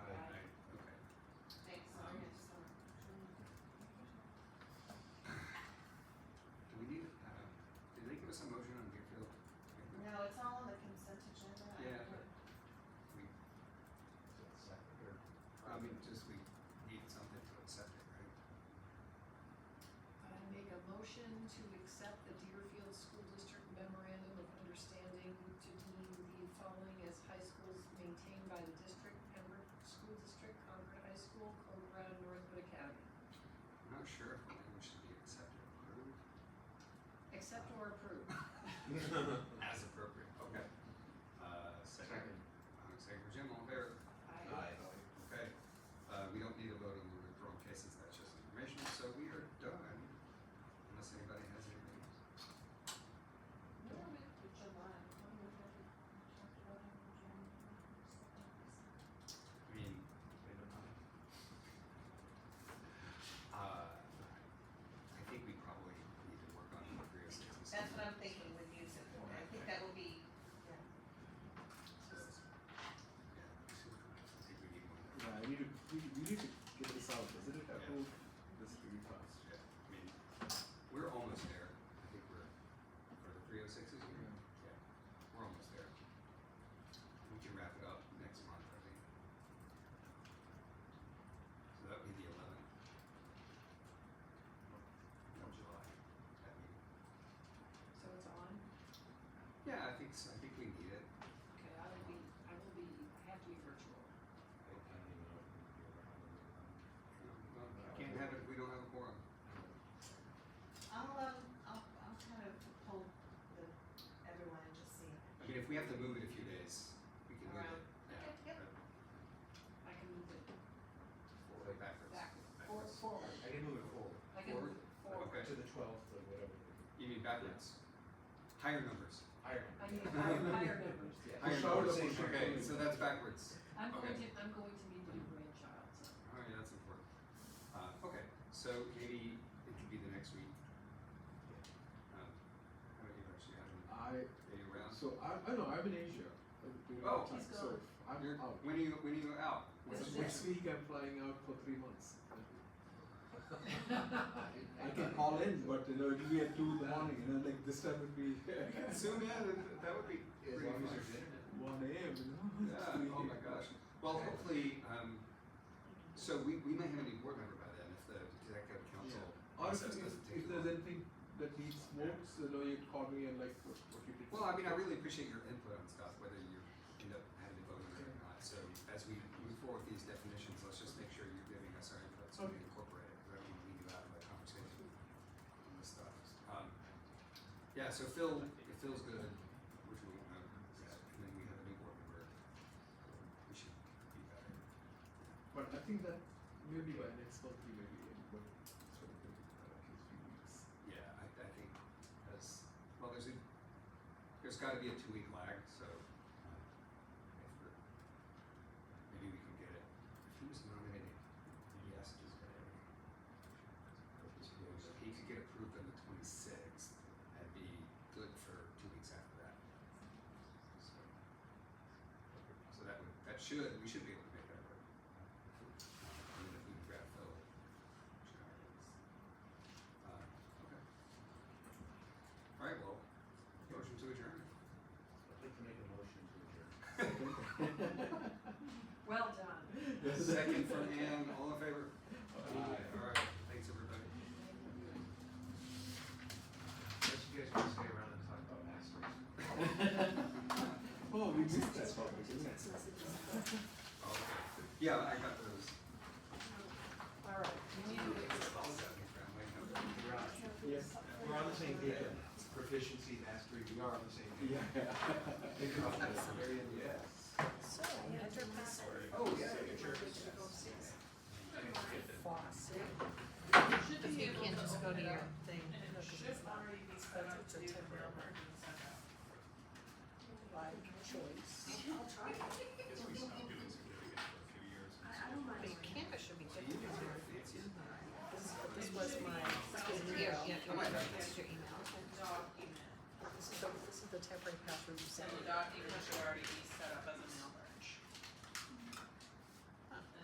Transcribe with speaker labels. Speaker 1: Uh, uh, just we need something to accept it, right?
Speaker 2: I make a motion to accept the Deerfield School District memorandum of understanding to deem the following as high schools maintained by the district, Pembroke School District, Concord High School, Cobra, and Northwood Academy.
Speaker 1: I'm not sure if the language should be accepted or approved.
Speaker 2: Accept or approve.
Speaker 1: As appropriate, okay. Uh, second, uh, second for Jim, all in favor?
Speaker 2: I,
Speaker 1: Okay, uh, we don't need a vote on the withdrawal cases, that's just information, so we are done, unless anybody has anything else.
Speaker 2: no, I meant to July. When we had it, we talked about it in January, so-
Speaker 1: I mean, they don't mind. Uh, I think we probably need to work on the oh career status.
Speaker 3: That's what I'm thinking with music, I think that will be,
Speaker 1: So, yeah, I think we need one.
Speaker 4: Yeah, I need to, we, we need to get this out, isn't it? That
Speaker 1: Yeah.
Speaker 4: whole, this is really fast.
Speaker 1: Yeah, I mean, we're almost there. I think we're, for the three oh sixes, we're, yeah, we're almost there. We can wrap it up next month, I think. So that would be the eleventh. Of July, that meeting.
Speaker 2: So it's on?
Speaker 1: Yeah, I think, so. I think we need it.
Speaker 2: Okay, I will be, I will be, I have to be virtual.
Speaker 1: Um, Can't have it if we don't have a quorum.
Speaker 3: I'll, um, I'll, I'll kind of pull the, everyone and just see.
Speaker 1: I mean, if we have to move it a few days, we can move it.
Speaker 3: Around.
Speaker 1: Yeah.
Speaker 3: Yep, yep.
Speaker 2: I can move it
Speaker 1: Way backwards.
Speaker 2: back, or
Speaker 1: Backwards.
Speaker 2: forward.
Speaker 5: I can move it forward
Speaker 2: I can move it forward.
Speaker 1: Okay.
Speaker 5: to the twelfth or whatever. the
Speaker 1: You mean backwards? Higher numbers.
Speaker 5: Higher.
Speaker 2: I need higher, higher numbers.
Speaker 1: Higher
Speaker 4: Push forward,
Speaker 1: numbers.
Speaker 4: push forward.
Speaker 1: Okay, so that's backwards.
Speaker 2: I'm going
Speaker 1: Okay.
Speaker 2: to, I'm going to meet my grandchild, so.
Speaker 1: Oh yeah, that's important. Uh, okay, so maybe it could be the next week. Um, how about you actually have any,
Speaker 4: I,
Speaker 1: any rounds?
Speaker 4: so I, I know, I'm in Asia. I'm doing
Speaker 1: Oh.
Speaker 4: time,
Speaker 2: He's
Speaker 4: so
Speaker 2: gone.
Speaker 4: I'm
Speaker 1: You're,
Speaker 4: out.
Speaker 1: when are you, when are you out?
Speaker 2: This
Speaker 4: Next
Speaker 2: is
Speaker 4: next week, I'm flying out for three months. I can call in, but you know, it'll be at two in the morning, you know, like this time would be
Speaker 1: Soon, yeah, that, that would be
Speaker 5: As
Speaker 1: pretty
Speaker 5: long as
Speaker 1: fun.
Speaker 5: you're dinner.
Speaker 4: one AM, you know. it's
Speaker 1: Yeah,
Speaker 4: three
Speaker 1: oh my
Speaker 4: AM.
Speaker 1: gosh. Well, hopefully, um, so we, we may have a new board member by then if the executive council
Speaker 4: Or if,
Speaker 1: process
Speaker 4: if,
Speaker 1: doesn't
Speaker 4: if
Speaker 1: take
Speaker 4: there's
Speaker 1: long.
Speaker 4: anything that needs votes, you know, you call me and like what, what you did.
Speaker 1: Well, I mean, I really appreciate your input on stuff, whether you end up having to vote on it or not. So as we move forward with these definitions, let's just make sure you're giving us our input so we
Speaker 4: Okay.
Speaker 1: incorporate it, because I don't want to leave you out of that conversation on this stuff. Um, yeah, so Phil, if Phil's good, which we won't know, yet, and then we have a new board member, we should be better.
Speaker 4: But I think that maybe by next month we may be able to sort of think about at least few weeks.
Speaker 1: Yeah, I, I think as well. There's a, there's got to be a two week lag, so um, if we're, maybe we can get it. If he was nominated, yes, just get it. If he could get approved on the twenty sixth, that'd be good for two weeks after that. So, so that would that should we should be able to make that work. And then if we grab Phil, we should have it. Uh, okay. All right, well, motion to adjourn.
Speaker 5: I'd like to make a motion to adjourn.
Speaker 2: Well done.
Speaker 1: Second from Ann, all in favor? All right, thanks everybody.
Speaker 5: Unless you guys want to stay around and talk about masters.
Speaker 4: Oh, we missed that topic, isn't it?
Speaker 1: Okay. Yeah, I got those.
Speaker 2: All right, we need to
Speaker 1: I was out here, I'm like, okay.
Speaker 5: We're on,
Speaker 4: Yes.
Speaker 5: we're on the same page. on Proficiency, mastery, we are on the same page.
Speaker 4: Yeah.
Speaker 5: Think about this, very end, yeah.
Speaker 6: So, enter password.
Speaker 1: Oh, yeah.